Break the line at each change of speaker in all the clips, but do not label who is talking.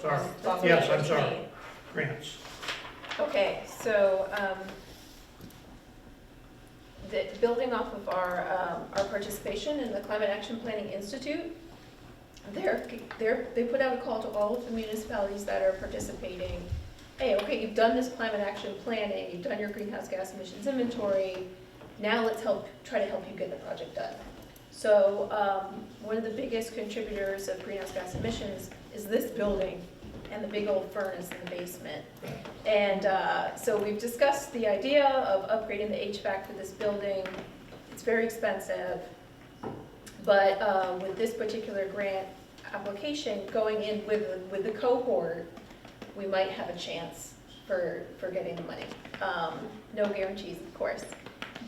sorry.
That's what
Yes,
I
I'm sorry.
mean.
Grants.
Okay, so, um, the, building off of our, um, our participation in the Climate Action Planning Institute, they're, they're, they put out a call to all of the municipalities that are participating. Hey, okay, you've done this climate action planning, you've done your greenhouse gas emissions inventory, now let's help, try to help you get the project done. So, um, one of the biggest contributors of greenhouse gas emissions is this building and the big old furnace in the basement. And uh, so we've discussed the idea of upgrading the HVAC for this building. It's very expensive. But uh, with this particular grant application going in with, with the cohort, we might have a chance for, for getting the money. Um, No guarantees, of course.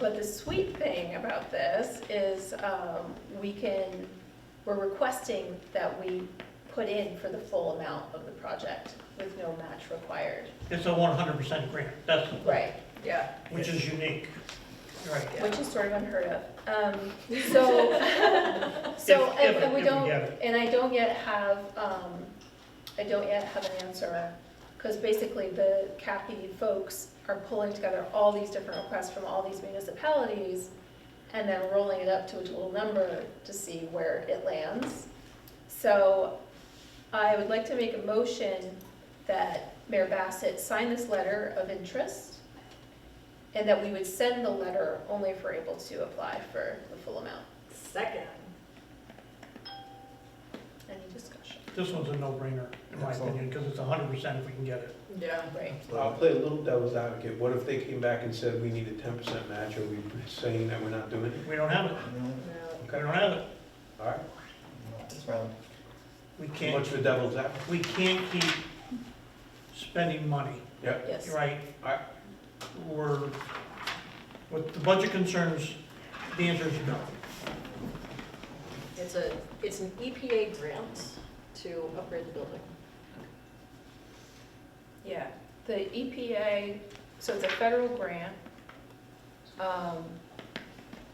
But the sweet thing about this is um, we can, we're requesting that we put in for the full amount of the project with no match required.
It's a one hundred percent grant, that's, the-
Right,
Yeah.
which is unique. Right.
Yeah.
which is sort of unheard of. Um, So, so,
If-
and
if-
and we
if we
don't,
get it.
and I don't yet have, um, I don't yet have an answer, because basically the CAPI folks are pulling together all these different requests from all these municipalities, and then rolling it up to a total number to see where it lands. So I would like to make a motion that Mayor Bassett sign this letter of interest, and that we would send the letter only if we're able to apply for the full amount.
Second.
Any discussion?
This one's a no-brainer, in my opinion, because it's hundred percent if we can get it.
Yeah.
Right.
I'll play a little devil's advocate. What if they came back and said, we need a ten percent match, are we saying that we're not doing it?
We don't have it, we
Okay,
don't have it.
all right.
We
Too much
can't,
for devil's advocate.
we can't keep spending money,
Yes.
right?
Alright.
We're, with the budget concerns, the answer is no.
It's a, it's an EPA grant to upgrade the building.
Yeah, the EPA, so it's a federal grant. Um,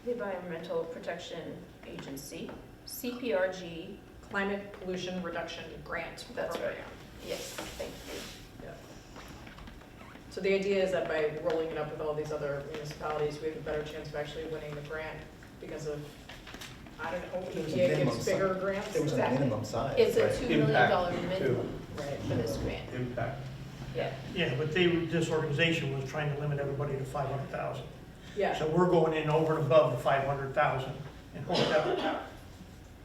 The Environmental Protection Agency, CPRG,
Climate pollution reduction grant
That's
program.
yes, thank you.
So the idea is that by rolling it up with all these other municipalities, we have a better chance of actually winning the grant because of, I don't know, E
There was
EPA
a minimum
gives bigger
size.
grants.
There was a
Exactly.
minimum size.
It's a
right?
$2 million dollar
Impact, too.
minimum
Right.
for this grant,
Impact.
yeah.
Yeah, but they, this organization was trying to limit everybody to five hundred thousand.
Yeah,
So we're going in over and above the five hundred thousand and hope that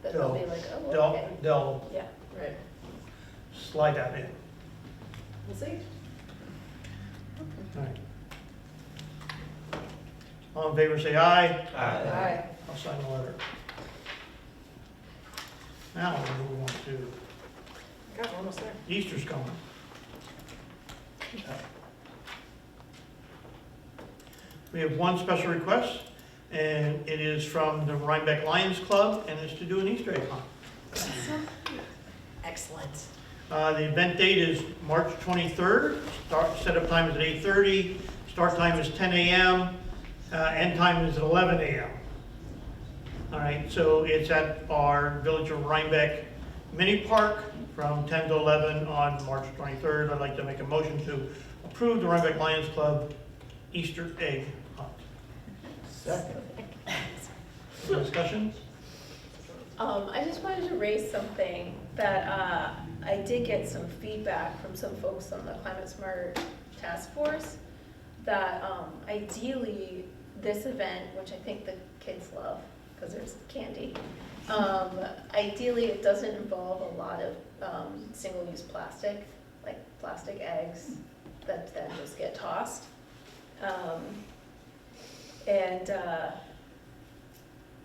That they'll be
No.
like, oh, okay,
they'll, they'll
yeah.
right.
slide that in.
We'll see.
Alright. All in favor, say aye.
Aye.
Uh,
Aye.
I'll sign the letter. Now, we move on to,
God, we're almost there.
Easter's coming. We have one special request, and it is from the Rhinebeck Lions Club, and it's to do an Easter egg hunt.
Excellent.
Uh, The event date is March 23rd. Start, setup time is at 8:30. Start time is 10 a.m. Uh, End time is at 11 a.m. All right, so it's at our Village of Rhinebeck Mini Park from 10 to 11 on March 23rd. I'd like to make a motion to approve the Rhinebeck Lions Club Easter egg hunt.
Second.
Discussions?
Um, I just wanted to raise something that, uh, I did get some feedback from some folks on the Climate Smart Task Force that, um, ideally, this event, which I think the kids love, because there's candy, um, ideally, it doesn't involve a lot of, um, single-use plastic, like plastic eggs that then just get tossed. Um, and, uh,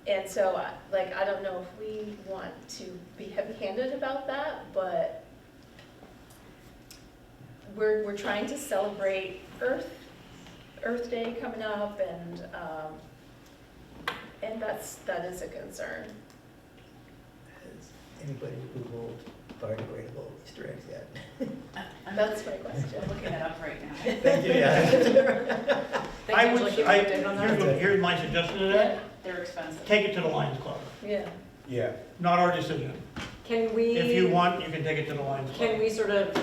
and so, I- like, I don't know if we want to be heavy-handed about that, but we're, we're trying to celebrate Earth, Earth Day coming up, and, um, and that's, that is a concern.
Has anybody Googled biodegradable Easter eggs yet?
That's my question.
I'm looking it up right now.
Thank you, yeah.
Thank you,
I would-
Angela, keep
I-
me updated on that.
here's what- Here's my suggestion to that.
They're expensive.
Take it to the Lions Club.
Yeah,
Yeah,
Not our decision.
Can we?
If you want, you can take it to the Lions Club.
Can we sort of